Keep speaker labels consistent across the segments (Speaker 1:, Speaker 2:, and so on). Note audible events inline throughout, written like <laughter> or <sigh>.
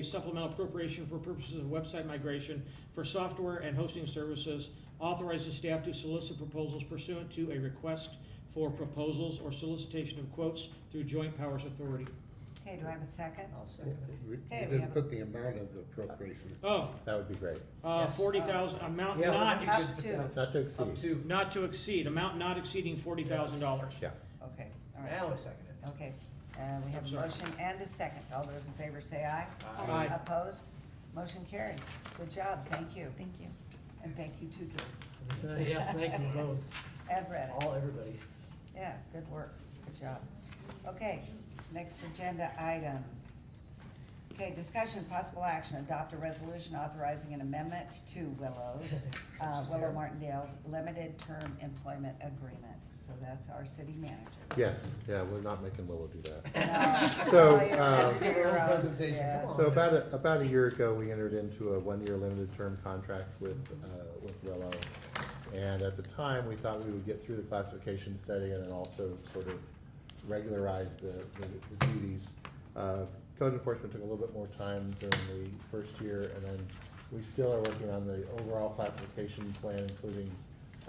Speaker 1: a supplemental appropriation for purposes of website migration for software and hosting services. Authorizes staff to solicit proposals pursuant to a request for proposals or solicitation of quotes through joint powers authority.
Speaker 2: Okay, do I have a second?
Speaker 3: I'll second it.
Speaker 4: We we
Speaker 2: Okay, we have
Speaker 4: didn't
Speaker 2: a-
Speaker 4: put the amount of the appropriation.
Speaker 1: Oh,
Speaker 4: That would be great.
Speaker 1: uh,
Speaker 3: Yes.
Speaker 1: forty thousand, amount
Speaker 3: Yeah,
Speaker 1: not,
Speaker 3: we
Speaker 1: ex-
Speaker 2: Up to,
Speaker 4: Not to
Speaker 3: Up
Speaker 4: exceed.
Speaker 3: to,
Speaker 1: not to exceed, amount not exceeding forty thousand dollars.
Speaker 4: Yeah.
Speaker 2: okay, all right,
Speaker 3: now I second it.
Speaker 2: okay. Uh, we
Speaker 1: I'm
Speaker 2: have a
Speaker 1: sorry.
Speaker 2: motion and a second. All those in favor say aye.
Speaker 1: Aye. Aye.
Speaker 2: Opposed? Motion carries. Good job, thank you. Thank you. And thank you too, Gil.
Speaker 3: Yes, Uh, thank you both,
Speaker 2: Ed Reddick.
Speaker 3: all, everybody. <laughs>
Speaker 2: Yeah, good work, good job. Okay, next agenda item. Okay, discussion, possible action, adopt a resolution authorizing an amendment to
Speaker 1: <laughs>
Speaker 2: Willow's, uh,
Speaker 3: She's
Speaker 2: Willow
Speaker 3: here.
Speaker 2: Martindale's limited term employment agreement. So that's our city manager.
Speaker 4: Yes, yeah, we're not making Willow do that.
Speaker 3: <laughs>
Speaker 2: No,
Speaker 4: So,
Speaker 3: Oh,
Speaker 2: no, you have to
Speaker 4: um,
Speaker 2: do your own,
Speaker 3: Presentation,
Speaker 2: yeah.
Speaker 3: come on. Uh,
Speaker 4: So about, a- about a year ago, we entered into a one-year limited term contract with, uh, with Rello. And at the time, we thought we would get through the classification study and then also sort of regularize the, the- the duties. Uh, Code enforcement took a little bit more time during the first year, and then we still are working on the overall classification plan, including,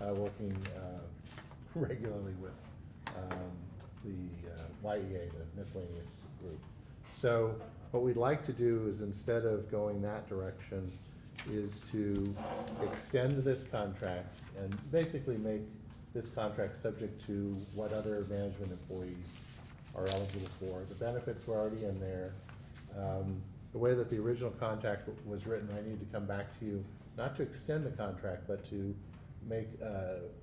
Speaker 4: uh, working, uh, <laughs> regularly with, um, the uh, YEA, the miscellaneous group. So what we'd like to do is instead of going that direction, is to extend this contract and basically make this contract subject to what other management employees are eligible for. The benefits were already in there. Um, The way that the original contract w- was written, I need to come back to you, not to extend the contract, but to make uh,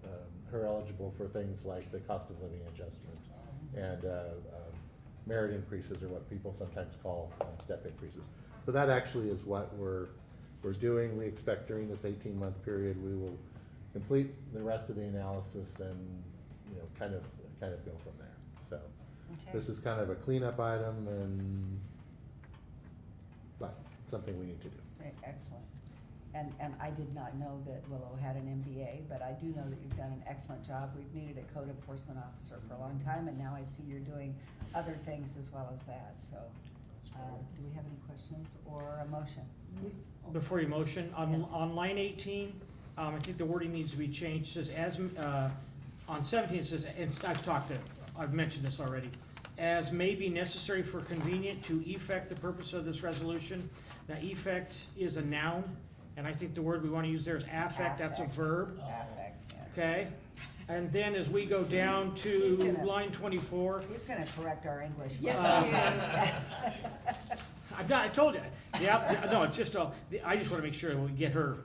Speaker 4: um, her eligible for things like the cost of living adjustment
Speaker 1: Uh-huh.
Speaker 4: and uh, um, merit increases are what people sometimes call uh, step increases. So that actually is what we're, we're doing. We expect during this eighteen-month period, we will complete the rest of the analysis and, you know, kind of, kind of go from there. So
Speaker 2: Okay,
Speaker 4: this is kind of a cleanup item and, but something we need to do.
Speaker 2: great, Eh, excellent. And, and I did not know that Willow had an MBA, but I do know that you've done an excellent job. We've needed a code enforcement officer for a long time, and now I see you're doing other things as well as that, so.
Speaker 3: That's
Speaker 2: uh,
Speaker 3: great.
Speaker 2: Do we have any questions or a motion?
Speaker 1: Before you motion, on,
Speaker 2: Yes.
Speaker 1: on line eighteen, um, I think the wording needs to be changed, says as, uh, on seventeen, it says, and I've talked to, I've mentioned this already. As may be necessary for convenient to effect the purpose of this resolution. Now, effect is a noun, and I think the word we wanna use there is affect, that's a
Speaker 2: Affect.
Speaker 1: verb.
Speaker 2: Affect, yes.
Speaker 1: Okay, and then as we go down
Speaker 2: He's
Speaker 1: to
Speaker 2: gonna-
Speaker 1: line twenty-four,
Speaker 2: He's gonna correct our English.
Speaker 5: Yes,
Speaker 1: I've got, I told you, yeah, no, it's just, all- I just wanna make sure we get her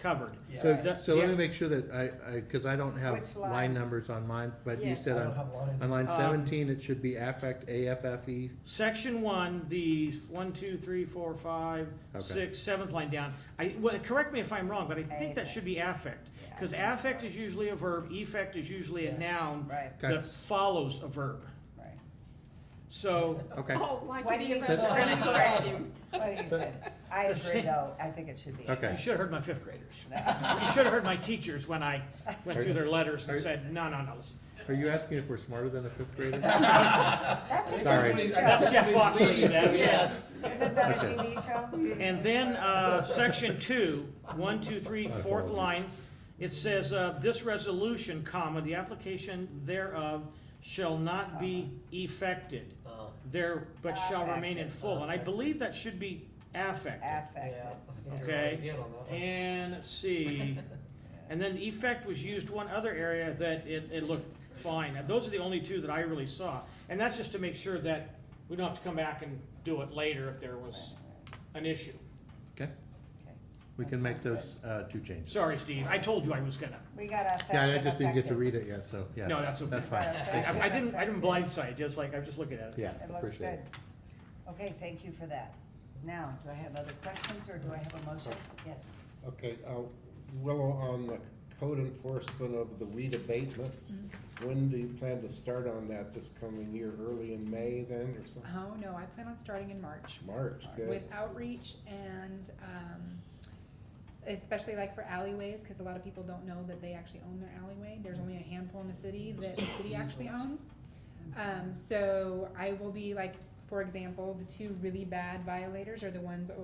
Speaker 1: covered.
Speaker 4: So,
Speaker 1: Yes.
Speaker 4: so let me
Speaker 1: Yeah.
Speaker 4: make sure that I, I, cause I don't have
Speaker 2: Which line?
Speaker 4: line numbers on mine, but you
Speaker 5: Yes.
Speaker 3: I
Speaker 4: said
Speaker 3: don't
Speaker 4: on,
Speaker 3: have lines.
Speaker 4: on line
Speaker 1: Um,
Speaker 4: seventeen, it should be affect, A-F-F-E,
Speaker 1: Section one, the one, two, three, four, five,
Speaker 4: Okay.
Speaker 1: six, seventh line down, I, well, correct me if I'm wrong, but I think that
Speaker 2: Affect.
Speaker 1: should be affect.
Speaker 2: Yeah, I
Speaker 1: Cause
Speaker 2: think so.
Speaker 1: affect is usually a verb, effect is usually a
Speaker 3: Yes.
Speaker 1: noun
Speaker 2: <laughs> Right,
Speaker 4: Okay.
Speaker 1: that follows a verb.
Speaker 2: right.
Speaker 1: So,
Speaker 4: okay.
Speaker 5: Oh, why
Speaker 2: Why
Speaker 5: did
Speaker 2: do
Speaker 5: he
Speaker 2: you-
Speaker 5: press
Speaker 4: That's-
Speaker 2: <laughs>
Speaker 5: and correct him?
Speaker 2: What he said. I agree, though. I think it should be.
Speaker 4: Okay.
Speaker 1: you
Speaker 2: <laughs>
Speaker 1: should've heard my fifth graders. You should've heard my teachers when I went through their letters and
Speaker 4: Are-
Speaker 1: said, no, no, no, listen.
Speaker 4: Are you asking if we're smarter than a fifth
Speaker 1: <laughs>
Speaker 4: grader?
Speaker 2: That's a
Speaker 4: Sorry.
Speaker 2: TV
Speaker 1: That's
Speaker 2: show.
Speaker 1: Jeff Fox for you, Deb.
Speaker 3: Yes.
Speaker 2: Isn't that a TV show?
Speaker 1: And then, uh, section two, one, two, three, fourth line, it says, uh, this resolution, comma, the application thereof shall not be effected
Speaker 3: Oh,
Speaker 1: there, but shall remain in full, and I believe that should be affected.
Speaker 2: Affected.
Speaker 3: yeah.
Speaker 1: Okay.
Speaker 3: Again on that one.
Speaker 1: And, let's see, and then effect was used one other area that it, it looked fine, and those are the only two that I really saw. And that's just to make sure that we don't have to come back and do it later if there was an issue.
Speaker 4: Okay,
Speaker 2: Okay.
Speaker 4: we
Speaker 2: That
Speaker 4: can make
Speaker 2: sounds
Speaker 4: those, uh, two changes.
Speaker 1: Sorry, Steve, I told you I was gonna.
Speaker 2: We got affected.
Speaker 4: Yeah, I just didn't get to
Speaker 2: affected.
Speaker 4: read it yet, so, yeah.
Speaker 1: No, that's okay.
Speaker 4: That's
Speaker 2: Got
Speaker 4: fine.
Speaker 2: affected,
Speaker 1: I, I didn't, I didn't
Speaker 2: affected.
Speaker 1: blindside, just like, I was just looking at it.
Speaker 4: Yeah,
Speaker 2: It looks
Speaker 4: appreciate
Speaker 2: good.
Speaker 4: it.
Speaker 2: Okay, thank you for that. Now, do I have other questions or do I have a motion? Yes.
Speaker 6: Okay, uh, Willow, on the code enforcement of the weed abatements,
Speaker 1: Mm-hmm.
Speaker 6: when do you plan to start on that this coming year, early in May then, or something?
Speaker 5: Oh, no, I plan on starting in March
Speaker 6: March,
Speaker 5: with
Speaker 6: good.
Speaker 5: outreach and, um, especially like for alleyways, cause a lot of people don't know that they actually own their alleyway. There's only a handful in the city that the city actually owns. Um, so I will be like For example, the two really bad violators are the ones